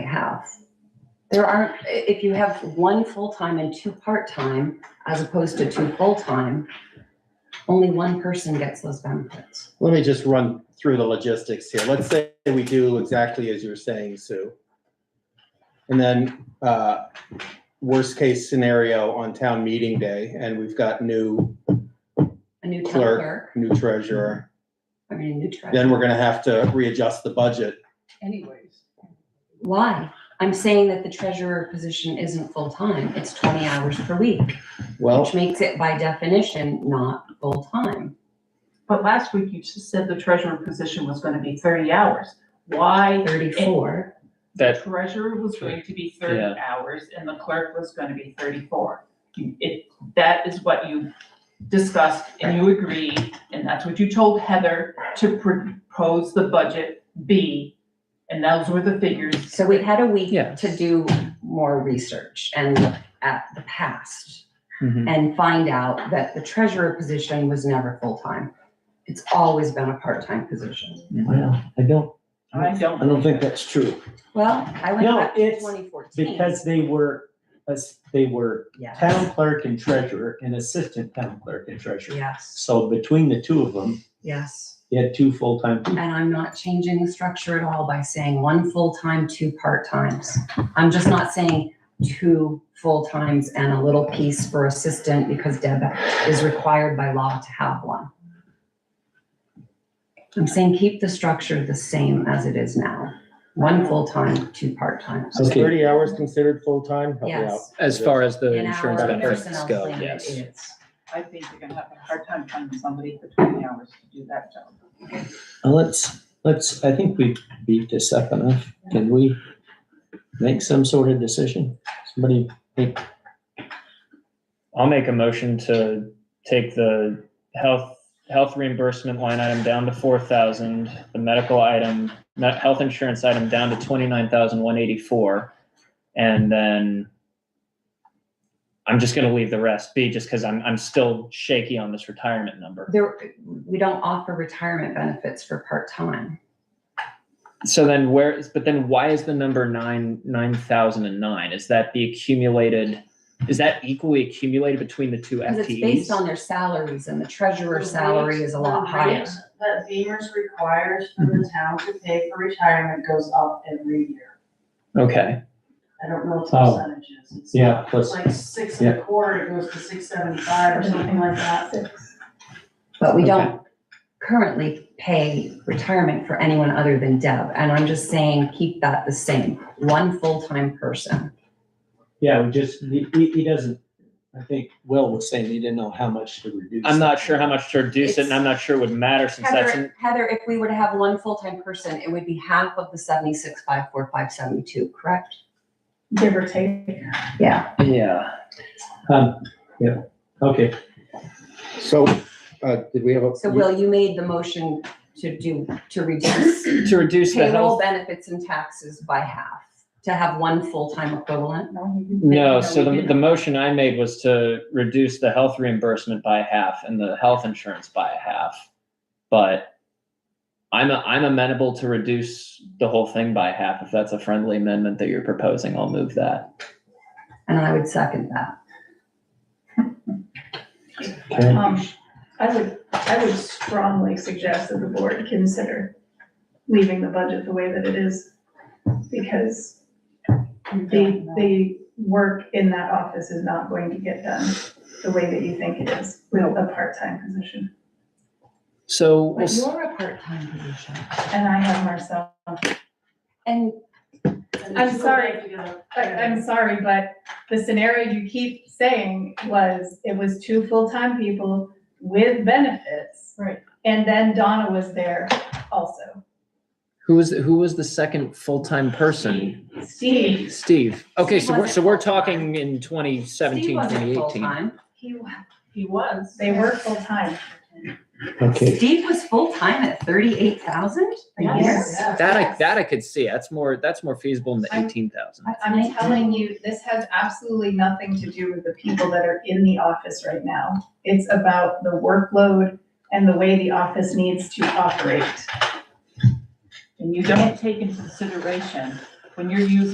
have. There aren't, i- if you have one full-time and two part-time, as opposed to two full-time, only one person gets those benefits. Let me just run through the logistics here. Let's say we do exactly as you were saying, Sue. And then, uh, worst case scenario on town meeting day, and we've got new, A new town Clerk. clerk, new treasurer. I mean, a new treasurer. Then we're gonna have to readjust the budget. anyways. Why? I'm saying that the treasurer position isn't full-time. It's twenty hours per week, Well, which makes it by definition not full-time. But last week you just said the treasurer position was gonna be thirty hours. Why Thirty-four, the That, treasurer was going to be Yeah. thirty hours and the clerk was gonna be thirty-four? You- It, that is what you discussed and you agreed, and that's what you told Heather to propose the budget be. And those were the figures. so we had a week Yes. to do more research and look at the past. and find out that the treasurer position was never full-time. It's always been a part-time position. Well, I don't, I I don't, don't think that's true, Well, I went No, back to it's twenty fourteen. because they were, as, they were town clerk and treasurer and assistant town clerk and treasurer. Yes, So between the two of them, yes. you had two full-time And people. I'm not changing the structure at all by saying one full-time, two part-times. I'm just not saying two full-times and a little piece for assistant because Deb is required by law to have one. I'm saying keep the structure the same as it is now. One full-time, two part-times. so Okay. thirty hours considered full-time? Help me out. Yes. as far as the In our insurance benefits personnel go, plan, it yes. is. I think you're gonna have a hard time finding somebody for twenty hours to do that job. Now Let's, let's, I think we beat this up enough. Can we make some sort of decision? Somebody, I'll make a motion to take the health, health reimbursement line item down to four thousand, the medical item, me- health insurance item down to twenty-nine thousand one eighty-four. And then I'm just gonna leave the rest be just because I'm, I'm still shaky on this retirement number. There, we don't offer retirement benefits for part-time. So then where is, but then why is the number nine, nine thousand and nine? Is that the accumulated, is that equally accumulated between the two FTEs? Because it's based on their salaries and the treasurer's The salary rate- is a lot the higher. rate That Beamers requires for the town to pay for retirement goes up every year. Okay. I don't know what the Oh. percentage is. It's yeah, It's plus, like six and a quarter, it goes to six seventy-five or something like that. But we don't currently pay retirement for anyone other than Deb. And I'm just saying, keep that the same, one full-time person. yeah, we just, he, he he doesn't, I think Will was saying he didn't know how much to reduce. I'm not sure how much to reduce it, and I'm not sure it would matter since that's, Heather, Heather, if we were to have one full-time person, it would be half of the seventy-six, five, four, five, seventy-two, correct? Give or take. Yeah, yeah. Um, yeah, okay, So, uh, did we have a? so Will, you made the motion to do, to reduce To reduce the payroll health, benefits and taxes by half, to have one full-time equivalent. no, so the, the motion I made was to reduce the health reimbursement by half and the health insurance by a half. But I'm, a- I'm amenable to reduce the whole thing by half. If that's a friendly amendment that you're proposing, I'll move that. And I would second that. okay. Um, I would, I would strongly suggest that the board consider leaving the budget the way that it is. Because the, the work in that office is not going to get done the way that you think it is with a part-time position. So, we'll But s- you're a part-time position. And I have Marcel. And I'm sorry. I, I'm sorry, but the scenario you keep saying was, it was two full-time people with benefits. Right. And then Donna was there also. who was, who was the second full-time person? Steve, Steve. Okay, so we're, so Wasn't we're full-time. talking in twenty seventeen, Steve wasn't twenty eighteen. full-time. he, He was. they were full-time. Okay. Steve was full-time at thirty-eight thousand a year? Yes. That I, that I could see. That's more, that's more feasible than the eighteen thousand. That's I'm nice. telling you, this has absolutely nothing to do with the people that are in the office right now. It's about the workload and the way the office needs to operate. And you don't take into consideration when you're using